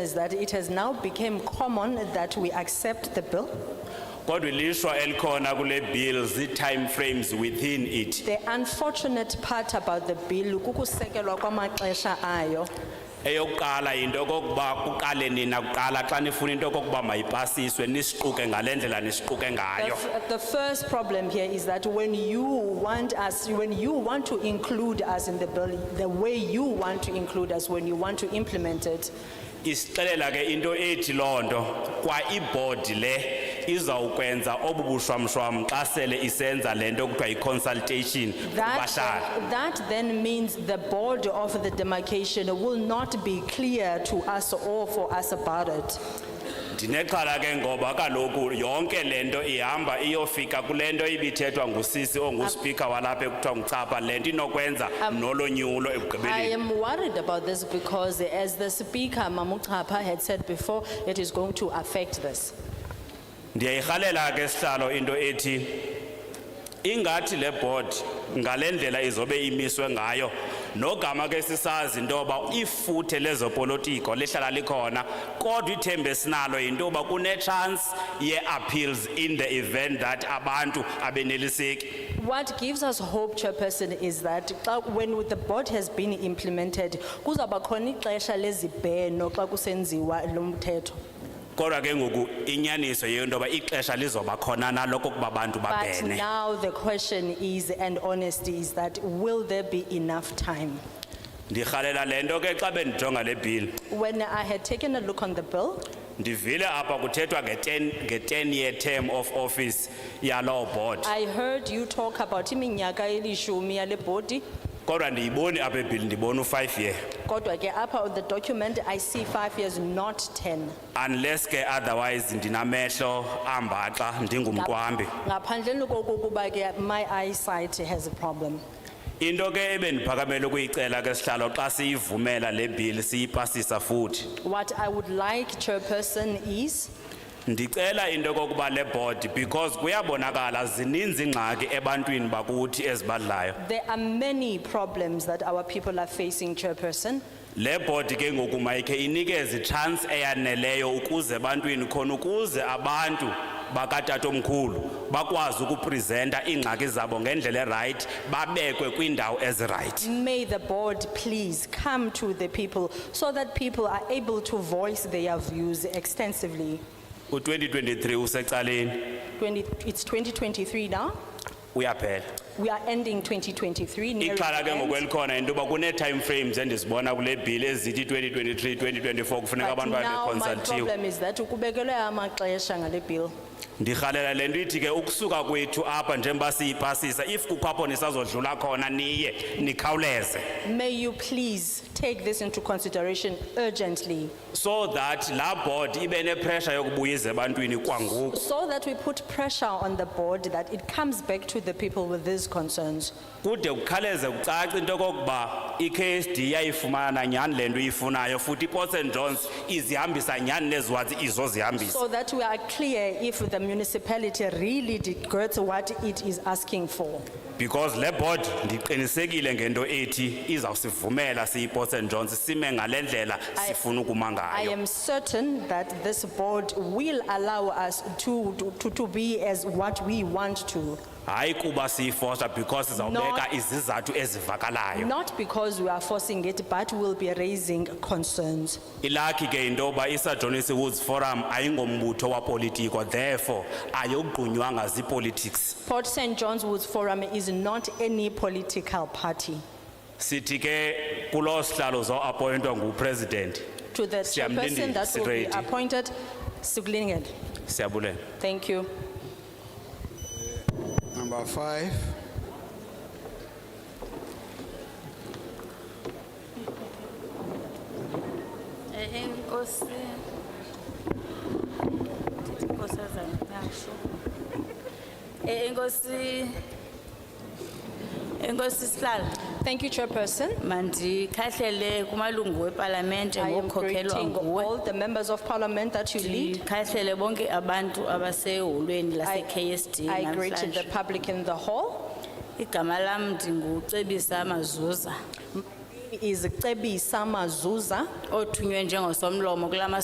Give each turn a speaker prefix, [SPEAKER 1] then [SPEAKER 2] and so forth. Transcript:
[SPEAKER 1] is that it has now become common that we accept the bill.
[SPEAKER 2] kodwa ilishwa elikhona kule bill zii-timeframes within it
[SPEAKER 1] The unfortunate part about the bill kukusekelwa kwamaxesha ayo.
[SPEAKER 2] eyokuqala yinto yokokuba kuqale nina kuqala xa nifuna into yokokuba mayipasiswe nisiquke ngale ndlela nisiquke
[SPEAKER 1] The
[SPEAKER 2] ngayo
[SPEAKER 1] f- The first problem here is that when you want us, when you want to include us in the bill, the way you want to include us, when you want to implement it,
[SPEAKER 2] isixelela ke into ethi loo nto kwa ibhodi le izawukwenza obu bushwamshwam xa sele isenza le nto kuthiwa yi-consultation
[SPEAKER 1] That,
[SPEAKER 2] kubahlali
[SPEAKER 1] that then means the board of the demarcation will not be clear to us or for us about it.
[SPEAKER 2] ndinexhala ke ngoba kaloku yonke le nto ihamba iyofika kule nto ibithethwa ngusisi onguspika walapha ekuthiwa ngucapha le nto inokwenza nolonyulo
[SPEAKER 1] I
[SPEAKER 2] ekugqibeleni
[SPEAKER 1] am worried about this because as the speaker, Mamuchapa had said before, it is going to affect this.
[SPEAKER 2] ndiyayirhalela ke sihlalo into ethi ingathi le board ngale ndlela izobe imiswe ngayo nogama ke sisazi into yoba ifuthe lezopolitiko lihlala likhona kodwa ithemba esinalo yinto yoba kunetshansi ye-appeals in the event that abantu abeneliseki
[SPEAKER 1] What gives us hope, Chairperson, is that xa- when the board has been implemented, kuzaba khona ixesha lezibheno xa kusenziwa lo mthetho.
[SPEAKER 2] kodwa ke ngoku inyaniso yento yoba ixesha lizoba khona naloko kuba abantu
[SPEAKER 1] But
[SPEAKER 2] babhene
[SPEAKER 1] now the question is, and honesty is that, will there be enough time?
[SPEAKER 2] ndirhalela le nto ke xa bendijonga le bhili
[SPEAKER 1] When I had taken a look on the bill,
[SPEAKER 2] ndivile apha kuthethwa nge-ten year term of office yaloo board
[SPEAKER 1] I heard you talk about iminyaka elishumi yale body.
[SPEAKER 2] kodwa ndiyiboni apha ebhili ndibona u-five year
[SPEAKER 1] Kodwa ke apha on the document, I see five years, not 10.
[SPEAKER 2] unless ke otherwise ndinamehlo ambaxa ndingumqwambi
[SPEAKER 1] Ngaphandleni kokuba ke my eyesight has a problem.
[SPEAKER 2] into ke ebendiphakamele ukuyicela ke sihlalo xa siyivumela le bhili siyipasisa futhi
[SPEAKER 1] What I would like, Chairperson, is
[SPEAKER 2] Ndicela into kokuba le board because kuyabonakala zininzi ingxaki ebantwini bakuthi ezibadlayo.
[SPEAKER 1] there are many problems that our people are facing, Chairperson.
[SPEAKER 2] Le board ke ngoku mayikhe inikeze chance eyaneleyo ukuze ebantwini khona ukuze abantu bakatatomkhulu bakwazi ukupresenta iingxaki zabo ngendlela erayithi babekwe kwiindawo ezirayithi.
[SPEAKER 1] May the board please come to the people so that people are able to voice their views extensively.
[SPEAKER 2] U2023 usecaleni
[SPEAKER 1] 20 It's 2023 now.
[SPEAKER 2] uyaphela.
[SPEAKER 1] We are ending 2023. nearing
[SPEAKER 2] Ixhala ke
[SPEAKER 1] the end.
[SPEAKER 2] ngokwelikhona into yoba kune-time frames endizibona kule bhili ezithi 2023, 2024 kufuneka
[SPEAKER 1] But now
[SPEAKER 2] abantu
[SPEAKER 1] my
[SPEAKER 2] babekonsalthiwe.
[SPEAKER 1] problem is that ukubekelwe amaxesha ngale bill.
[SPEAKER 2] ndirhalela le nto ithi ke ukusuka kwethu apha njengoba siyipasisa if kukho apho nisazodlula khona niye nikhawuleze
[SPEAKER 1] May you please take this into consideration urgently
[SPEAKER 2] so that laa board ibe nepressure yokubuyiza ebantwini kwangoku
[SPEAKER 1] so that we put pressure on the board that it comes back to the people with these concerns.
[SPEAKER 2] kude kukhawuleze kucace into yokokuba i-ksd yayifumana nyhani le nto iyifunayo futhi iport st johns izihambisa nyhani neziwazi izozihambisa
[SPEAKER 1] So that we are clear if the municipality really did get what it is asking for.
[SPEAKER 2] because le board ndiqinisekile ngento ethi izawusivumela siyiport st johns sime ngale ndlela sifuna ukuma
[SPEAKER 1] I
[SPEAKER 2] ngayo
[SPEAKER 1] am certain that this board will allow us to, to, to be as what we want to.
[SPEAKER 2] hayi kuba siyifosta because izawubeka izizathu ezivakalayo
[SPEAKER 1] Not because we are forcing it, but we'll be raising concerns.
[SPEAKER 2] ilakhi ke into yoba isajonis woods forum ayingombutho wapolitiko therefore ayogqunywanga ziipolitics
[SPEAKER 1] Port St. John's Woods Forum is not any political party.
[SPEAKER 2] sithi ke kuloo sihlalo zoappointwa ngupresident
[SPEAKER 1] To the chairperson
[SPEAKER 2] Siyamlindile,
[SPEAKER 1] that will be
[SPEAKER 2] siredi.
[SPEAKER 1] appointed, Suglingen.
[SPEAKER 2] siyabulela
[SPEAKER 1] Thank you.
[SPEAKER 3] Number five.
[SPEAKER 4] Eh, Enkosi. Ndithi Nkosazana Nyasho. Eh, Enkosi. Enkosi sihlalo.
[SPEAKER 1] Thank you, chairperson.
[SPEAKER 4] Mandikhahlele kumalungu wepalamente
[SPEAKER 1] I am
[SPEAKER 4] ngokukhokhelwa
[SPEAKER 1] greeting
[SPEAKER 4] nguwe.
[SPEAKER 1] all the members of parliament that you lead.
[SPEAKER 4] Ndikhahlele bonke abantu abaseholweni
[SPEAKER 1] I-
[SPEAKER 4] lase-KSD
[SPEAKER 1] I greet the
[SPEAKER 4] namhlanje.
[SPEAKER 1] public in the hall.
[SPEAKER 4] Igama lam ndingucebisa mazuza.
[SPEAKER 1] is Tebi Samazuza.
[SPEAKER 4] othunywe njengosomlomo kula